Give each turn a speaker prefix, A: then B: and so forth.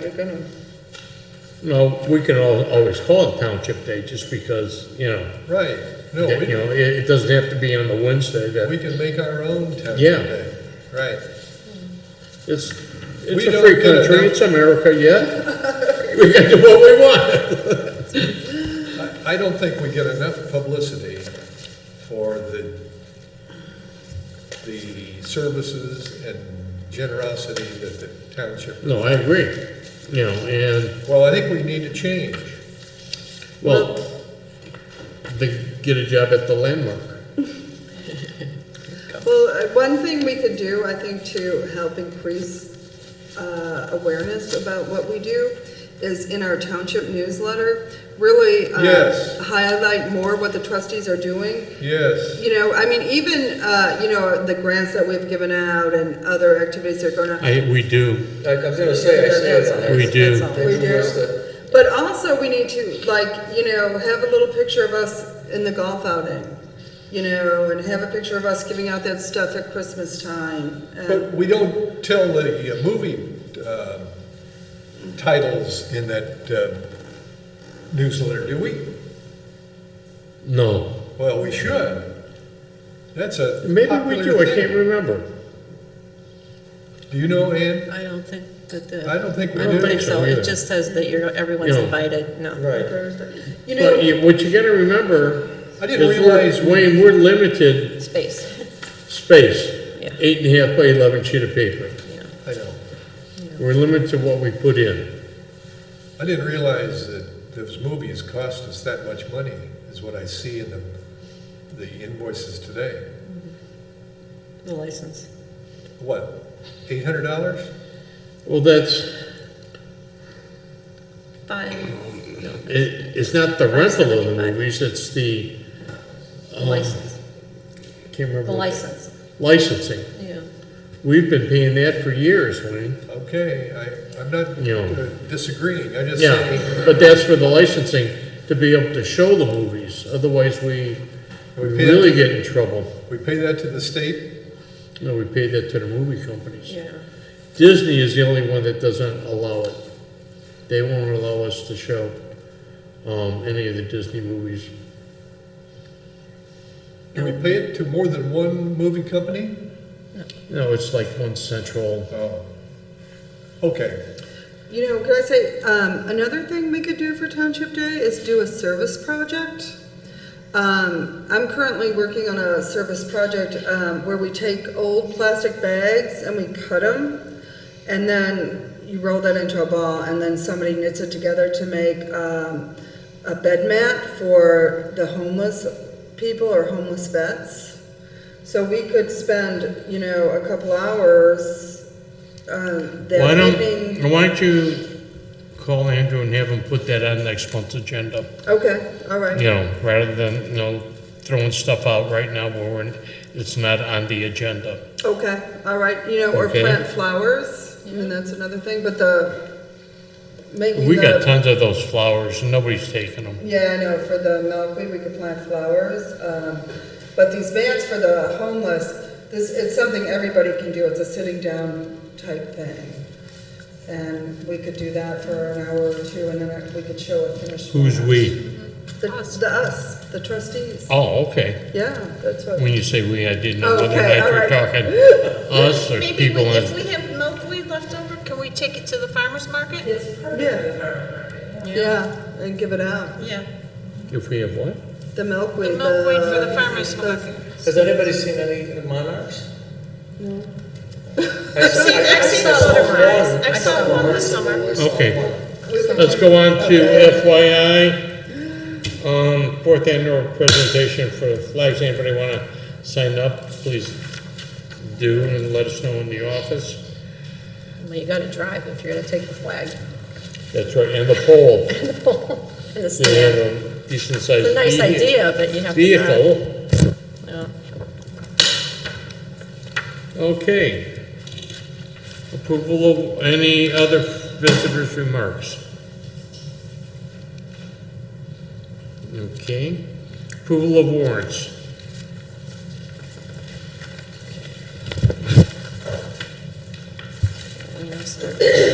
A: they're gonna,
B: No, we can al- always call it Township Day just because, you know,
C: Right, no,
B: that- you
C: we,
B: know, it, it doesn't have to be on the Wednesday
C: we
B: that,
C: can make our own township
B: Yeah.
C: day. Right,
B: it's,
C: We
B: it's a
C: don't
B: free
C: get enough-
B: country, it's America, yeah. We can do what we want.
C: I, I don't think we get enough publicity for the, the services and generosity that the township,
B: No, I agree, you know, and
C: well, I think we need to change.
B: Well, they get a job at the landmark.
D: Well, uh, one thing we could do, I think, to help increase uh, awareness about what we do is in our township newsletter, really uh,
C: Yes.
D: highlight more what the trustees are doing.
C: Yes,
D: You know, I mean, even, uh, you know, the grants that we've given out and other activities that are going on.
B: I, we do,
E: I I was gonna say, I see that on there.
B: we do.
E: They
D: We
E: do
D: do.
E: list it.
D: But also, we need to, like, you know, have a little picture of us in the golf outing, you know, and have a picture of us giving out that stuff at Christmas time. and-
C: but we don't tell the uh, movie, um, titles in that uh, newsletter, do we?
B: No,
C: Well, we should. That's a
B: maybe we
C: popular
B: do, I
C: thing.
B: can't remember.
C: Do you know, Ann?
F: I don't think that the.
C: I don't think we
F: I don't
C: do.
F: think so,
B: either.
F: it just says that you're, everyone's
B: No.
F: invited, no.
E: Right.
D: You know,
B: But you- what you gotta remember
C: I didn't
B: is we're,
C: realize, we-
B: Wayne, we're limited
F: Space,
B: space.
F: Yeah.
B: Eight and a half by eleven sheet of paper.
F: yeah.
C: I know,
B: We're limited to what we put in.
C: I didn't realize that those movies cost us that much money, is what I see in the, the invoices today.
F: the license.
C: What, eight hundred dollars?
B: Well, that's,
F: Five,
B: it, it's not the rental of the movies, it's the, um,
F: license,
B: can't remember.
F: the
B: what-
F: license,
B: Licensing.
F: yeah.
B: We've been paying that for years, Wayne.
C: Okay, I, I'm not
B: Yeah.
C: uh, disagreeing, I just
B: Yeah,
C: say,
B: but that's for the licensing, to be able to show the movies, otherwise we we
C: We pay that
B: really
C: to-
B: get in trouble.
C: we pay that to the state?
B: No, we pay that to the movie companies.
F: Yeah,
B: Disney is the only one that doesn't allow it. They won't allow us to show, um, any of the Disney movies.
C: Do we pay it to more than one movie company?
B: No, it's like one central,
C: Oh. Okay,
D: you know, can I say um, another thing we could do for Township Day is do a service project. Um, I'm currently working on a service project um, where we take old plastic bags and we cut them, and then you roll that into a ball, and then somebody knits it together to make um, a bed mat for the homeless people or homeless vets. So we could spend, you know, a couple hours um,
B: Why
D: that evening.
B: don't, why don't you call Andrew and have him put that on next month's agenda?
D: Okay, all right.
B: You know, rather than, you know, throwing stuff out right now where we're, it's not on the agenda.
D: Okay, all right. You know, or
B: Okay.
D: plant flowers. I mean, that's another thing. But the making
B: We
D: the,
B: got tons of those flowers, and nobody's taking them.
D: Yeah, I know. For the milkweed, we could plant flowers. Um, but these vans for the homeless, this it's something everybody can do. It's a sitting down type thing, and we could do that for an hour or two, and then we could show a finished.
B: Who's
D: product.
B: we?
D: The, the us, the trustees.
B: Oh, okay.
D: Yeah, that's what.
B: When you say we, I didn't know whether
D: Okay,
B: or
D: all
B: not you're talking us or
G: Maybe we,
B: people
G: if
B: in.
G: we have milkweed left over, can we take it to the farmer's market?
D: yeah. Yeah, and give it out.
G: Yeah.
B: If we have what?
D: The milkweed.
G: The milkweed for the farmer's market.
E: Has anybody seen any monarchs?
D: No.
E: I've
G: seen- I've seen a lot of monarchs. I've saw one this summer.
B: Okay, let's go on to FYI. Um, fourth annual presentation for flags. Anybody want to sign up? Please do and let us know in the office.
F: well, you gotta drive if you're gonna take the flag
B: That's right, and the pole.
F: and the pole and the
B: They have
F: stand.
B: a decent
F: It's a
B: sized
F: nice idea, but you have to drive.
B: Vehicle.
F: Yeah.
B: Okay. Approval of any other visitors' remarks? Okay. Approval of warrants.
F: We know, start-